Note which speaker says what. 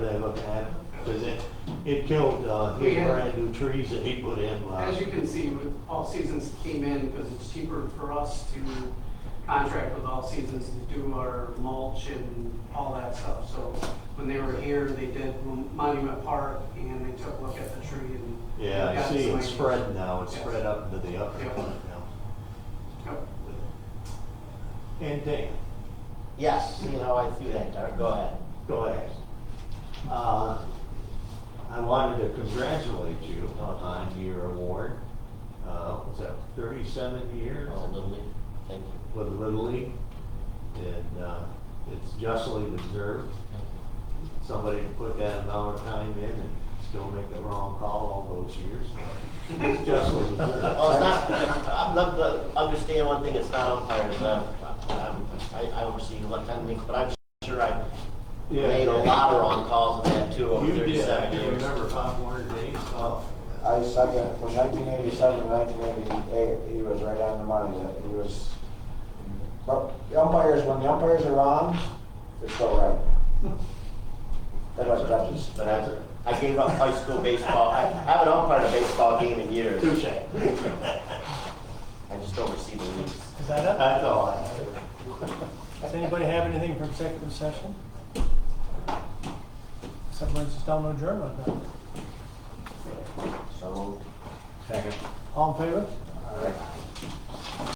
Speaker 1: of that, because it, it killed, uh, his
Speaker 2: Yeah.
Speaker 1: brand new trees that he put in
Speaker 2: As
Speaker 1: last.
Speaker 2: you can see, with All Seasons came in because it's cheaper for us to contract with All Seasons to do our mulch and all that stuff. So when they were here, they did Monument Park and they took a look at the tree and.
Speaker 1: Yeah, I
Speaker 2: got
Speaker 1: see
Speaker 2: some
Speaker 1: it's
Speaker 2: ideas.
Speaker 1: spread now, it's
Speaker 2: Yes.
Speaker 1: spread up into the upper
Speaker 2: Yep.
Speaker 1: one now.
Speaker 2: Yep.
Speaker 1: And Dan,
Speaker 3: Yes, you know, I threw that dart, go ahead.
Speaker 1: go ahead. Uh, I wanted to congratulate you on your award, uh, what's that, thirty-seven years?
Speaker 3: Oh, Little League, thank you.
Speaker 1: with Little League, and uh, it's justly deserved.
Speaker 3: Thank you.
Speaker 1: Somebody can put that amount of time in and still make the wrong call all those years. It's justly
Speaker 3: Well, it's not,
Speaker 1: deserved.
Speaker 3: I'm not, but understand one thing, it's not umpires, um, um, I, I oversee left-hand league, but I'm sure I've
Speaker 1: Yeah.
Speaker 3: made a lot of wrong calls in that too over
Speaker 1: You did, I
Speaker 3: thirty-seven
Speaker 1: can
Speaker 3: years.
Speaker 1: remember Pop Warner days, oh,
Speaker 4: I suck at, from 1987 to 1988, he was right on the money, that he was, but the umpires, when the umpires are on, they're still right. They're like judges.
Speaker 3: But I, I gave up high school baseball, I I haven't umpired a baseball game in years.
Speaker 1: touche.
Speaker 3: I just oversee the leagues.
Speaker 5: Is that up?
Speaker 1: That's all I have.
Speaker 5: Does anybody have anything for executive session? Someone's just down on German.
Speaker 3: So,
Speaker 5: All in favor?
Speaker 4: All right.